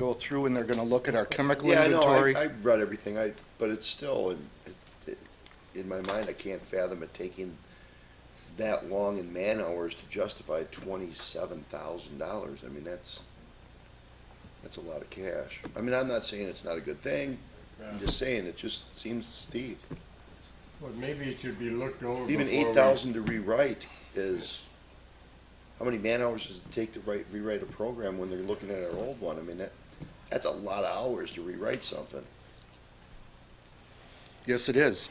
go through and they're gonna look at our chemical Yeah, I know, inventory. I, I read everything, I, but it's still, in- it- it- in my mind, I can't fathom it taking that long in man-hours to justify twenty-seven thousand dollars, I mean, that's, that's a lot of cash. I mean, I'm not saying it's not a good thing, I'm just saying, it just seems steep. Well, maybe it should be looked over. Even before eight we- thousand to rewrite is, how many man-hours does it take to write, rewrite a program when they're looking at our old one? I mean, that, that's a lot of hours to rewrite something. Yes, it is.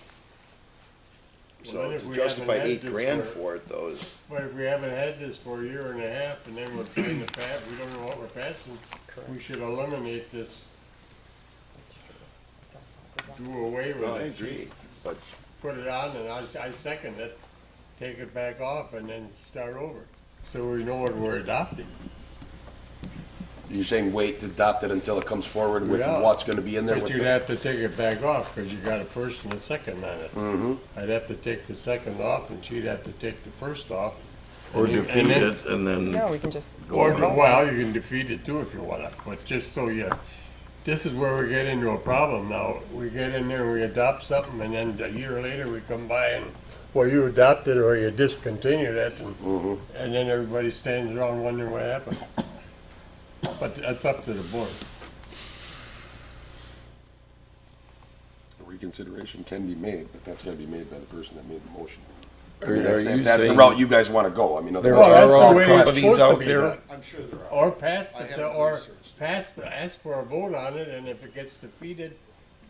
Well, So then if to we justify haven't had eight this grand for- for it though is, But if we haven't had this for a year and a half and then we're trying to pass, we don't know what we're passing, we should eliminate this, do away with well, I it. agree, but Put it on and I, I second it, take it back off and then start over. So we know what we're adopting. You're saying wait to adopt it until it comes forward with Yeah. what's gonna be in there? But with you'd the- have to take it back off because you got a first and a second on it. Mm-hmm. I'd have to take the second off and she'd have to take the first off. Or And you- and defeat then- it and No, then, we can just, Or, well, you can defeat it too if you wanna, but just so you, this is where we get into a problem now. We get in there, we adopt something, and then a year later, we come by and, well, you adopted or you discontinued it, and, Mm-hmm. and then everybody stands around wondering what happened. But that's up to the board. Reconsideration can be made, but that's gotta be made by the person that made the motion. I Are- mean, that's, are you if that's the saying- route you guys wanna go, I mean. There otherwise- are Well, that's all the way it's companies supposed to out be there. done. I'm sure there are. Or pass I the, haven't or researched. pass the, ask for a vote on it, and if it gets defeated,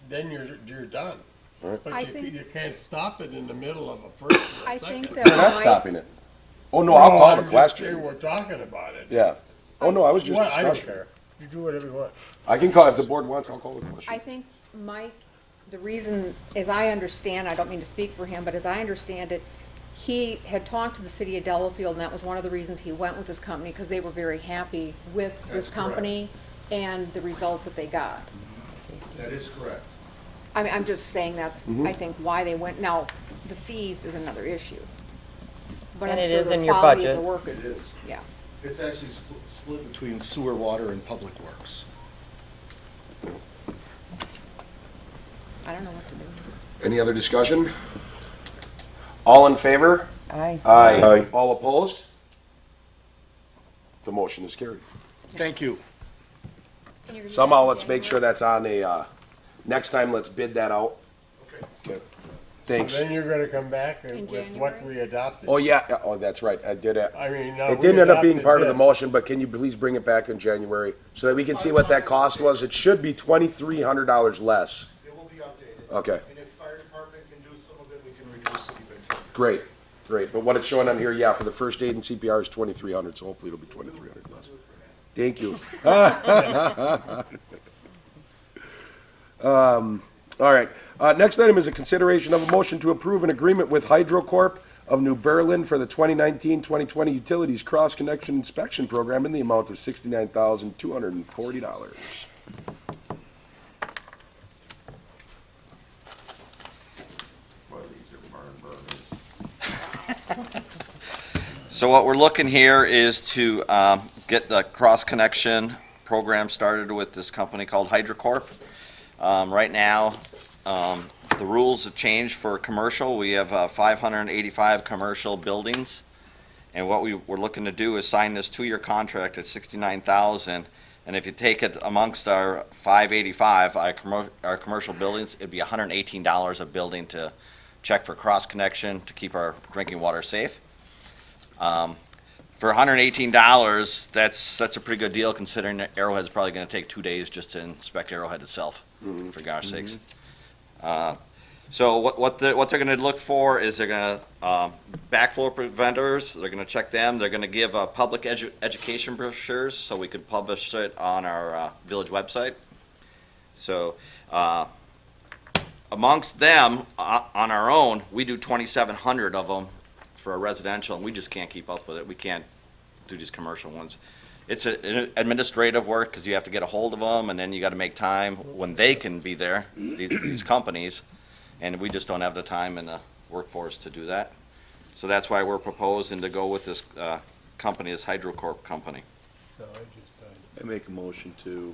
then you're, you're done. I But you, think- you can't stop it in the middle of a first or I a second. think that We're not my, stopping it. Oh, no, I'll call I'm the just saying question. We're talking about it. Yeah. Oh, no, I was just Well, I don't discussing. care. You do whatever you want. I can call, if the board wants, I'll call the I question. think, Mike, the reason, as I understand, I don't mean to speak for him, but as I understand it, he had talked to the city of Delafield, and that was one of the reasons he went with this company, because they were very happy with That's this correct. company and the results that they got. That is correct. I mean, I'm just saying that's, Mm-hmm. I think, why they went. Now, the fees is another issue. But I'm And it sure is the in your quality budget. of the work It is. is, yeah. It's actually spl- split between sewer, water, and public works. I don't know what to do. Any other discussion? All in favor? I, Aye. Aye. All opposed? The motion is carried. Thank you. Somehow, let's make sure that's on a, uh, next time, let's bid that out. Okay. Thanks. Then you're gonna come back In with what January? we adopted. Oh, yeah, yeah, oh, that's right, I did it. I mean, uh, It we didn't end up being adopted part of the this. motion, but can you please bring it back in January so that we can see what that cost was? It should be twenty-three hundred dollars less. It will be updated. Okay. And if fire department can do some of it, we can reduce it even further. Great, great. But what it's showing on here, yeah, for the first aid and CPR is twenty-three hundred, so hopefully it'll be twenty-three hundred less. Thank you. Um, all right. Uh, next item is a consideration of a motion to approve an agreement with HydroCorp of New Berlin for the 2019-2020 Utilities Cross Connection Inspection Program in the amount of sixty-nine thousand two hundred and forty dollars. So what we're looking here is to um, get the cross-connection program started with this company called HydroCorp. Um, Right now, um, the rules have changed for commercial. We have uh, 585 commercial buildings. And what we were looking to do is sign this two-year contract at 69,000. And if you take it amongst our 585, our commer- our commercial buildings, it'd be $118 a building to check for cross-connection to keep our drinking water safe for hundred and eighteen dollars, that's, that's a pretty good deal considering that Arrowhead's probably gonna take two days just to inspect Arrowhead itself, for gosh sakes. Uh, So what, what the, what they're gonna look for is they're gonna, um, backflow preventers, they're gonna check them, they're gonna give, uh, public edu- education brochures, so we could publish it on our, uh, village website. So, uh, amongst them, uh, on our own, we do twenty-seven hundred of them for a residential, and we just can't keep up with it. We can't do these commercial ones. It's a- an administrative work, because you have to get a hold of them, and then you gotta make time when they can be there, these, these companies. And we just don't have the time and the workforce to do that. So that's why we're proposing to go with this, uh, company, this HydroCorp company. So I just, uh, I make a motion to